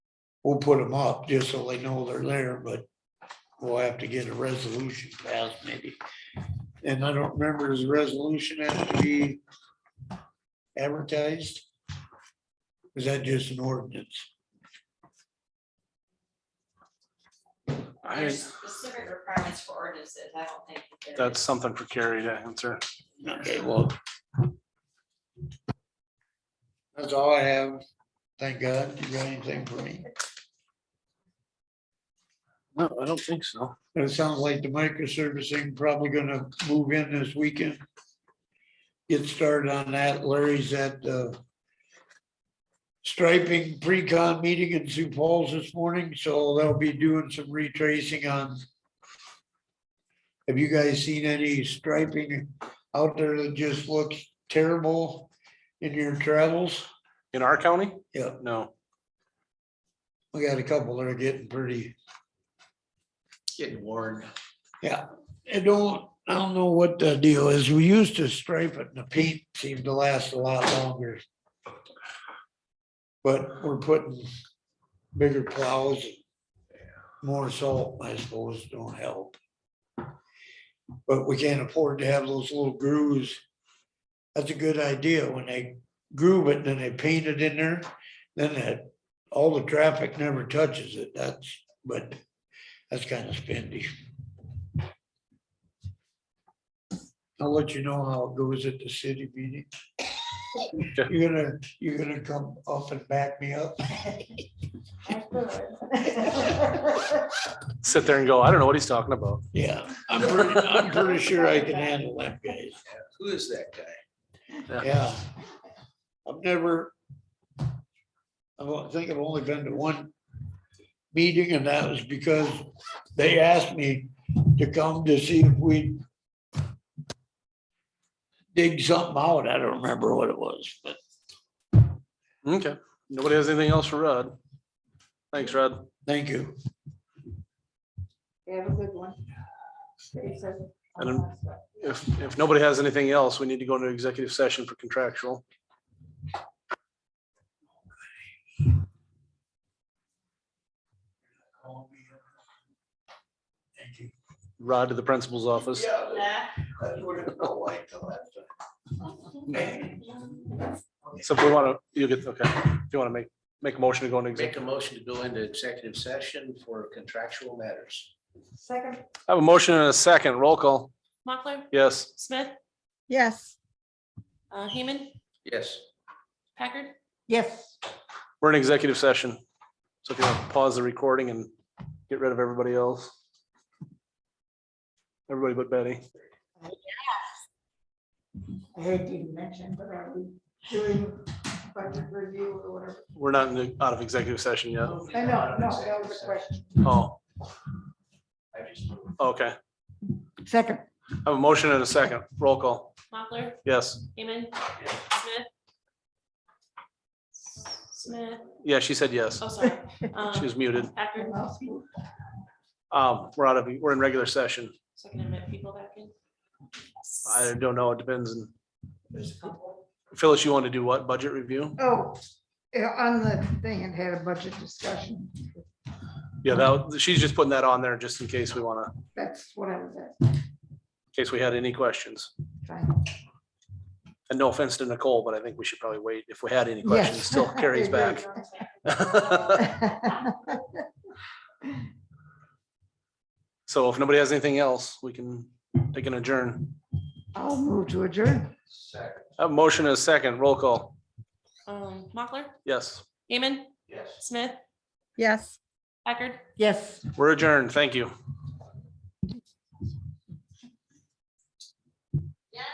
we'll put them up just so they know they're there, but we'll have to get a resolution passed maybe. And I don't remember, does the resolution have to be advertised? Is that just an ordinance? There's specific requirements for ordinances, I don't think. that there That's is. something for Carrie to answer. Okay, well. That's all I have. Thank God. You got anything for me? No, I don't think so. It sounds like the microservicing probably gonna move in this weekend. Get started on that. Larry's at the striping pre-con meeting in Sioux Falls this morning, so they'll be doing some retracing on. Have you guys seen any striping out there that just looks terrible in your travels? In our county? Yeah. No, We got a couple that are getting pretty Getting worn. Yeah, I don't, I don't know what the deal is. We used to stripe it and the paint seemed to last a lot longer. But we're putting bigger plows. More salt, I suppose, don't help. But we can't afford to have those little grooves. That's a good idea. When they groove it, then they paint it in there, then that, all the traffic never touches it. That's, but that's kind of spendy. I'll let you know how it goes at the city meeting. You're gonna, you're gonna come up and back me up. sit there and go, I don't know what he's talking about. Yeah, I'm pretty, I'm pretty sure I can handle them guys. Who is that guy? Yeah. I've never. I don't think I've only been to one meeting and that was because they asked me to come to see if we. Dig something out. I don't remember what it was, but Okay, nobody has anything else for Rod? Thanks, Rod. thank you. You have a good one. I don't- If, if nobody has anything else, we need to go into executive session for contractual. Thank you. Rod to the principal's office. Nah. So if we want to, you get, okay, if you want to make, make a motion to go into Make executive. a motion to go into executive session for contractual matters. Second. I have a motion and a second. Roll call. Mochler, Yes. Smith, Yes. uh, Heeman, Yes. Packard. Yes. We're in executive session. So if you want to pause the recording and get rid of everybody else. Everybody but Betty. I heard you mention, but are we doing budget review or whatever? We're not in the, out of executive session yet. I know, no, that was a question. Oh, I just moved. okay. Second, I have a motion and a second. Roll call. Mochler, Yes. Heeman, Smith. Smith, Yeah, she said yes. oh, sorry. She Um, was muted. Packard, Um, we're out of, we're in regular session. so I can admit people back in. I don't know. It depends. on- Phyllis, you want to do what? Budget review? Oh, yeah, on the thing, it had a budget discussion. Yeah, that, she's just putting that on there just in case we want to, in That's what I was asking. case we had any questions. Fine. And no offense to Nicole, but I think we should probably wait if we had any Yes. questions, still carries back. So if nobody has anything else, we can take an adjourn. I'll move to adjourn. Second, A motion and a second, roll call. Um, Mochler, Yes, Heeman, yes. Smith, Yes. Packard. Yes. we're adjourned. Thank you.